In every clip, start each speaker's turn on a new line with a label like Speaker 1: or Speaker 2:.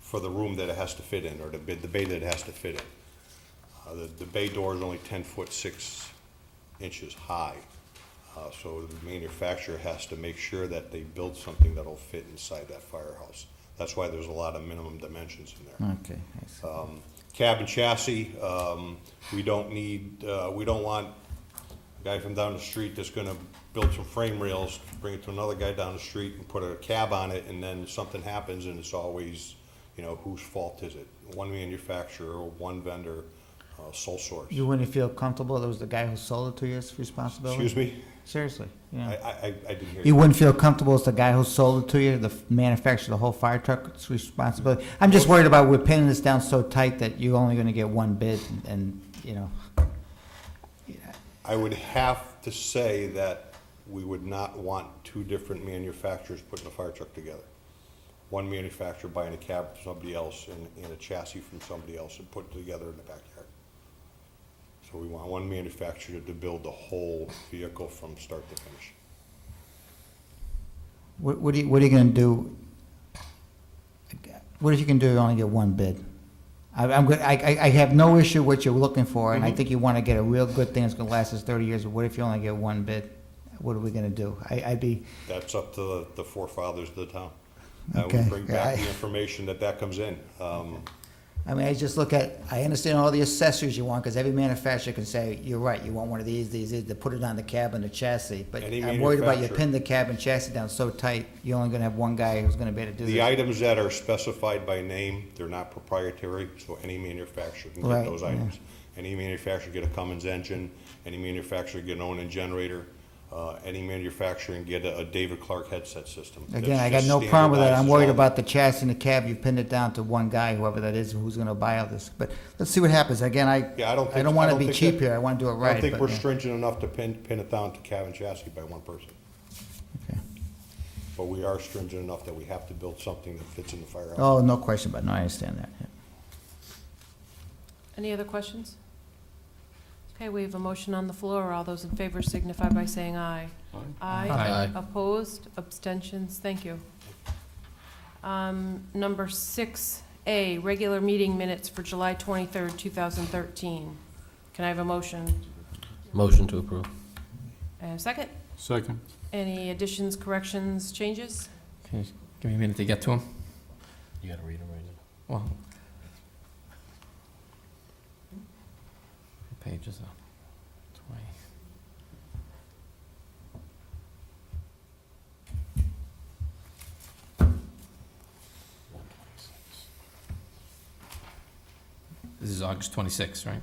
Speaker 1: for the room that it has to fit in, or the bay, the bay that it has to fit in. Uh, the, the bay door is only ten foot six inches high. Uh, so the manufacturer has to make sure that they build something that'll fit inside that firehouse. That's why there's a lot of minimum dimensions in there.
Speaker 2: Okay, I see.
Speaker 1: Uh, Cabin chassis, um, we don't need, uh, we don't want a guy from down the street that's gonna build some frame rails, bring it to another guy down the street and put a cab on it, and then something happens and it's always, you know, whose fault is it? One manufacturer, one vendor, uh, sole source.
Speaker 2: You wouldn't feel comfortable, that was the guy who sold it to you, it's responsibility?
Speaker 1: Excuse me?
Speaker 2: Seriously,
Speaker 1: I,
Speaker 2: yeah.
Speaker 1: I, I- I didn't hear
Speaker 2: You
Speaker 1: you.
Speaker 2: wouldn't feel comfortable as the guy who sold it to you, the f- manufacturer, the whole fire truck, it's responsibility? I'm just worried about we're pinning this down so tight that you're only gonna get one bid and- and, you know.
Speaker 1: I would have to say that we would not want two different manufacturers putting a fire truck together. One manufacturer buying a cab from somebody else and, and a chassis from somebody else and put it together in the backyard. So we want one manufacturer to build the whole vehicle from start to finish.
Speaker 2: What, what are you, what are you gonna do? What if you can do, you only get one bid? I, I'm, good- I, I- I have no issue what you're looking for,
Speaker 1: Mm-hmm.
Speaker 2: and I think you wanna get a real good thing that's gonna last us thirty years, but what if you only get one bid? What are we gonna do? I, I'd be,
Speaker 1: That's up to the- the forefathers of the town. I
Speaker 2: Okay,
Speaker 1: would bring back
Speaker 2: yeah, I-
Speaker 1: the information that that comes in. Um,
Speaker 2: I mean, I just look at, I understand all the accessories you want, because every manufacturer can say, you're right, you want one of these, these, these, to put it on the cab and the chassis, but
Speaker 1: Any
Speaker 2: I'm worried about you
Speaker 1: manufacturer.
Speaker 2: pin the cab and chassis down so tight, you're only gonna have one guy who's gonna be able to do
Speaker 1: The
Speaker 2: this.
Speaker 1: items that are specified by name, they're not proprietary, so any manufacturer can get
Speaker 2: Right,
Speaker 1: those
Speaker 2: yeah.
Speaker 1: items. Any manufacturer get a Cummins engine, any manufacturer get an Onan generator, uh, any manufacturer can get a a David Clark headset system.
Speaker 2: Again,
Speaker 1: That's
Speaker 2: I got
Speaker 1: just
Speaker 2: no problem with that, I'm
Speaker 1: standardized
Speaker 2: worried
Speaker 1: as
Speaker 2: about the chassis and the cab, you pinned it down to one guy, whoever that is, who's gonna buy all this, but let's see what happens, again, I,
Speaker 1: Yeah, I don't
Speaker 2: I
Speaker 1: think-
Speaker 2: don't
Speaker 1: I
Speaker 2: wanna
Speaker 1: don't
Speaker 2: be
Speaker 1: think
Speaker 2: cheap
Speaker 1: that-
Speaker 2: here, I wanna do it
Speaker 1: well. I
Speaker 2: right,
Speaker 1: don't think
Speaker 2: but,
Speaker 1: we're
Speaker 2: yeah.
Speaker 1: stringent enough to pin, pin it down to cab and chassis by one person,
Speaker 2: Okay.
Speaker 1: but we are stringent enough that we have to build something that fits in the firehouse.
Speaker 2: Oh, no question, but no, I understand that, yeah.
Speaker 3: Any other questions? Okay, we have a motion on the floor. All those in favor signify by saying aye. Aye.
Speaker 4: Aye.
Speaker 3: Opposed, abstentions, thank you. Um, Number 6A, regular meeting minutes for July 23rd, 2013. Can I have a motion?
Speaker 4: Motion to approve.
Speaker 3: And a second?
Speaker 5: Second.
Speaker 3: Any additions, corrections, changes?
Speaker 6: Okay, give me a minute to get to them.
Speaker 4: You gotta read them right now.
Speaker 6: Well, what page is that? Twenty. This is August twenty-sixth, right?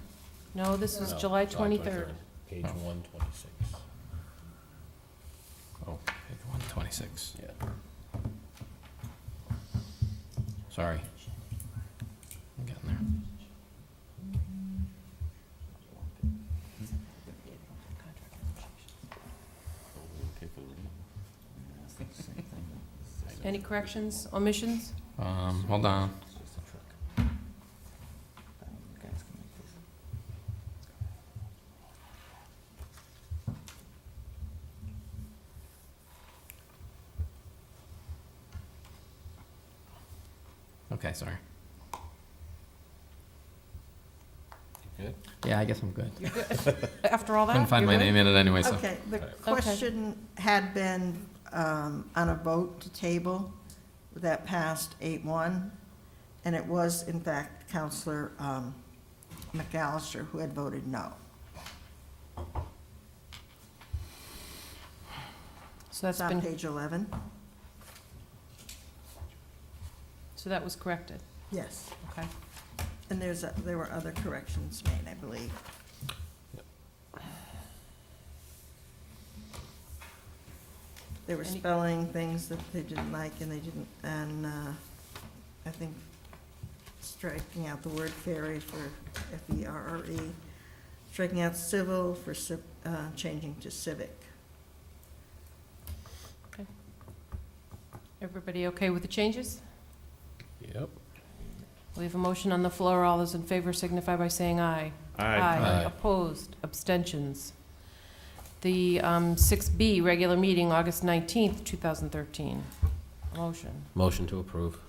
Speaker 3: No, this was July 23rd.
Speaker 4: Page one twenty-six.
Speaker 6: Oh, page one twenty-six.
Speaker 4: Yeah.
Speaker 6: Sorry. I'm getting there.
Speaker 3: Any corrections, omissions?
Speaker 6: Um, hold on. Okay, sorry.
Speaker 4: You good?
Speaker 6: Yeah, I guess I'm good.
Speaker 3: After all that?
Speaker 6: Couldn't find
Speaker 3: you're
Speaker 6: my
Speaker 3: good?
Speaker 6: name in it anyway, so.
Speaker 7: Okay, the question had been um, on a vote to table that passed eight-one, and it was in fact Counselor um, McAllister who had voted no.
Speaker 3: So that's
Speaker 7: It's on
Speaker 3: been
Speaker 7: page eleven?
Speaker 3: So that was corrected,
Speaker 7: Yes.
Speaker 3: okay.
Speaker 7: And there's, a- there were other corrections made, I believe. They were
Speaker 3: Any-
Speaker 7: spelling things that they didn't like and they didn't, and uh, I think striking out the word ferry for E F-E-R-R-E, striking out civil for civ, uh, changing to civic.
Speaker 3: Everybody okay with the changes?
Speaker 4: Yep.
Speaker 3: We have a motion on the floor. All those in favor signify by saying aye.
Speaker 4: Aye.
Speaker 3: Opposed, abstentions. The um, 6B, regular meeting, August 19th, 2013. Motion.
Speaker 4: Motion to approve.